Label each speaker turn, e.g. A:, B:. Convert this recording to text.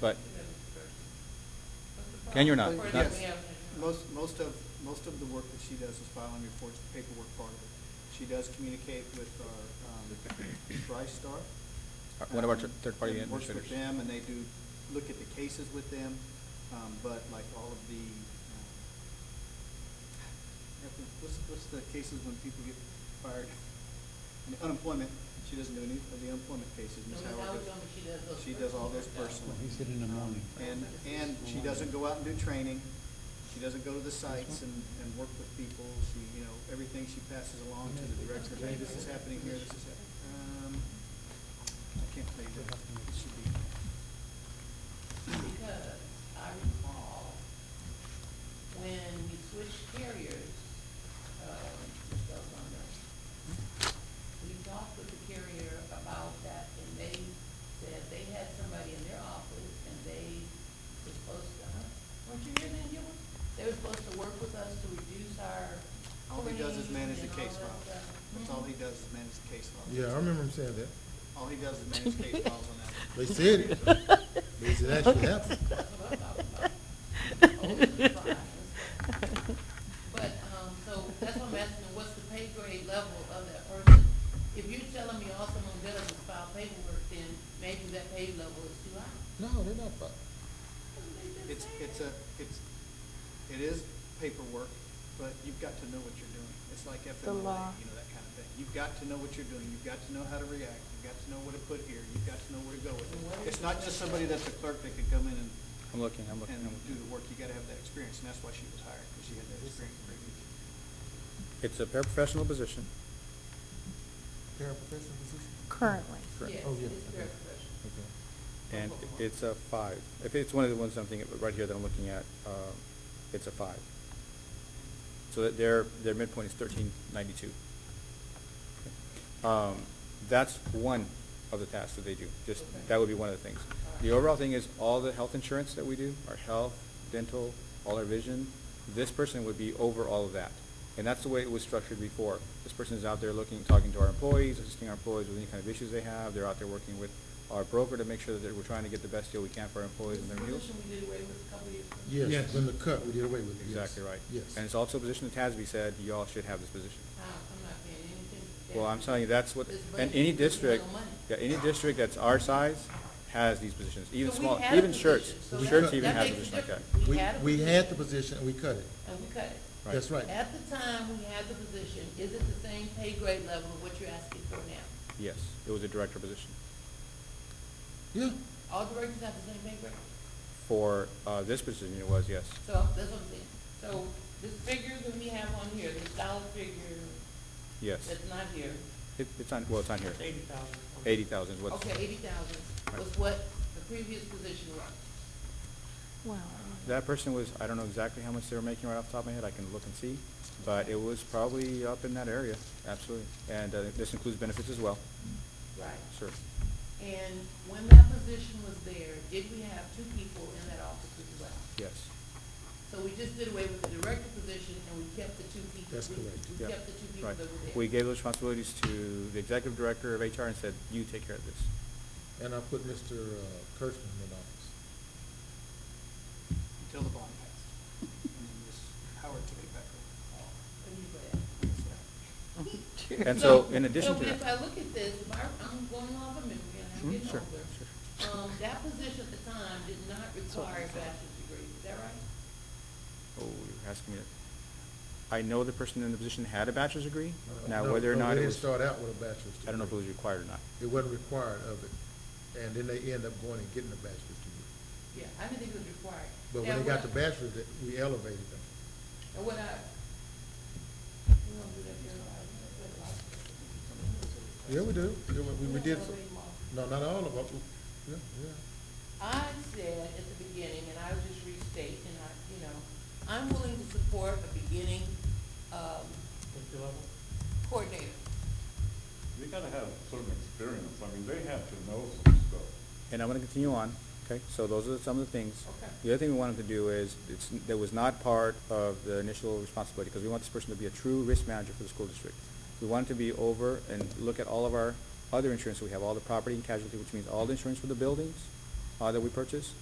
A: but Can you or not?
B: Or
A: Not-
B: that
A: Yes.
B: we have-
C: Most, most of, most of the work that she does is filing reports, the paperwork part of it. She does communicate with our, um, TriStar.
A: Uh, what about your
C: um,
A: third-party
C: and Works with
A: administrators?
C: them, and they do, look at the cases with them, um, but like all of the, um, what's, what's the cases when people get fired? And Unemployment, she doesn't do any of the unemployment cases,
B: No,
C: Ms.
B: Ms.
C: Howard
B: Howard
C: does.
B: told me she does those
C: She does all those personally.
D: He
B: personally.
D: said in the morning.
C: And, and she doesn't go out and do training, she doesn't go to the sites and, and work with people, she, you know, everything she passes along to the director, hey, this is happening here, this is hap- um, I can't tell you what, it should be.
B: Because I recall when we switched carriers, um, which goes on there, we talked with the carrier about that, and they said they had somebody in their office, and they were supposed to, huh? weren't you here then, Gilbert? They were supposed to work with us to reduce our
C: All he does is
B: claims
C: manage the
B: and all
C: case
B: that
C: files,
B: stuff.
C: that's all he does is manage the case files.
E: Yeah, I remember him saying that.
C: All he does is manage case files on that.
E: They said it, but it didn't actually happened.
B: But, um, so that's what I'm asking, what's the pay grade level of that person? If you're telling me all someone does is file paperwork, then maybe that pay level is too high.
E: No, they're not fired.
C: It's, it's a, it's, it is paperwork, but you've got to know what you're doing. It's like FMLA,
F: law.
C: you know, that kind of thing. You've got to know what you're doing, you've got to know how to react, you've got to know where to put here, you've got to know where to go with it. It's not just somebody that's a clerk that can come in and,
A: I'm looking, I'm looking.
C: and
A: I'm
C: do the
A: looking.
C: work, you gotta have that experience, and that's why she was hired, because she had that experience previously.
A: It's a paraprofessional position.
E: Paraprofessional position?
F: Currently.
A: Correct.
B: Yes,
E: Oh, yeah,
B: it's very
E: okay.
B: professional.
E: Okay.
A: And it's a five. If it's one of the ones I'm thinking, right here that I'm looking at, uh, it's a five. So that their, their midpoint is thirteen ninety-two. Um, that's one of the tasks that they do, just, that would be one of the things. The overall thing is all the health insurance that we do, our health, dental, all our vision, this person would be over all of that. And that's the way it was structured before. This person is out there looking, talking to our employees, assisting our employees with any kind of issues they have. They're out there working with our broker to make sure that we're trying to get the best deal we can for our employees and
B: This
A: their deals.
B: position we did away with a couple years ago.
E: Yes, when the cut, we did away with it. yes.
A: Exactly right.
E: Yes.
A: And it's also a position that Tasby said, y'all should have this position.
B: Uh, I'm not paying anything. to
A: Well,
B: that.
A: I'm telling you, that's what,
B: This
A: and
B: budget
A: any
B: is no
A: district,
B: money.
A: yeah, any district that's our size has these positions, even
B: So we
A: small,
B: had a
A: even shirts.
B: position, so
E: We
A: Shirts
E: cut-
A: even
E: that
A: has a
B: makes a
A: position like that.
B: difference.
E: We,
B: We had a
E: we had the
B: position.
E: position and we cut it.
B: And we cut it.
A: Right.
E: That's right.
B: At the time we had the position, is it the same pay grade level of what you're asking for now?
A: Yes, it was a director position
E: Yeah,
B: All directors have the same pay grade?
A: for, uh, this position it was, yes.
B: So that's what I'm saying. So this figure that we have on here, this dollar figure
A: Yes.
B: that's not here,
A: It, it's on, well, it's on here. Eighty thousand. Eighty thousand is what's,
B: okay, eighty thousand was what the previous position was.
F: Wow.
A: that person was, I don't know exactly how much they were making right off the top of my head, I can look and see, but it was probably up in that area, absolutely. And, uh, this includes benefits as well,
B: Right.
A: sure.
B: And when that position was there, did we have two people in that office as well?
A: Yes,
B: So we just did away with the director position and we kept the two people.
E: That's
B: we-
E: correct.
B: We
A: yeah,
B: kept the two people
A: right.
B: that were there.
A: We gave those responsibilities to the executive director of HR and said, you take care of this.
E: and I put Mr. uh, Kirschman in office.
C: Until the bond passed. And then Ms. Howard took it back over.
B: Couldn't you put that?
A: And so, in addition
B: so
A: to
B: if I
A: that,
B: look at this, if I, I'm going off of memory, and I'm
A: Mm,
B: getting
A: sure,
B: older. Um, that position at the time did not require a bachelor's degree, is that right?
A: oh, you're asking me that. I know the person in the position had a bachelor's degree, now
E: No,
A: whether or
E: no,
A: not
E: they
A: it
E: didn't
A: was,
E: Start out with a bachelor's degree.
A: I don't know if it was required or not.
E: It wasn't required of it, and then they end up going and getting a bachelor's
B: Yeah,
E: degree.
B: I didn't think it was required.
E: But
B: Now,
E: when they
B: what
E: got the
B: I-
E: bachelor's, that- we elevated them.
B: And what I. we don't do that here, right? That's what I-
E: Yeah, we do. Yeah, we- We, we did,
B: don't
E: some-
B: elevate them all.
E: no, not all of them. Yeah, yeah.
B: I said at the beginning, and I would just restate, and I, you know, I'm willing to support a beginning, um, coordinator.
G: They gotta have some experience, I mean, they have to know some stuff.
A: And I'm gonna continue on, okay? So those are some of the things.
B: Okay.
A: The other thing we wanted to do is, it's, that was not part of the initial responsibility, because we want this person to be a true risk manager for the school district. We want to be over and look at all of our other insurance, we have all the property and casualty, which means all the insurance for the buildings, uh, that we purchase,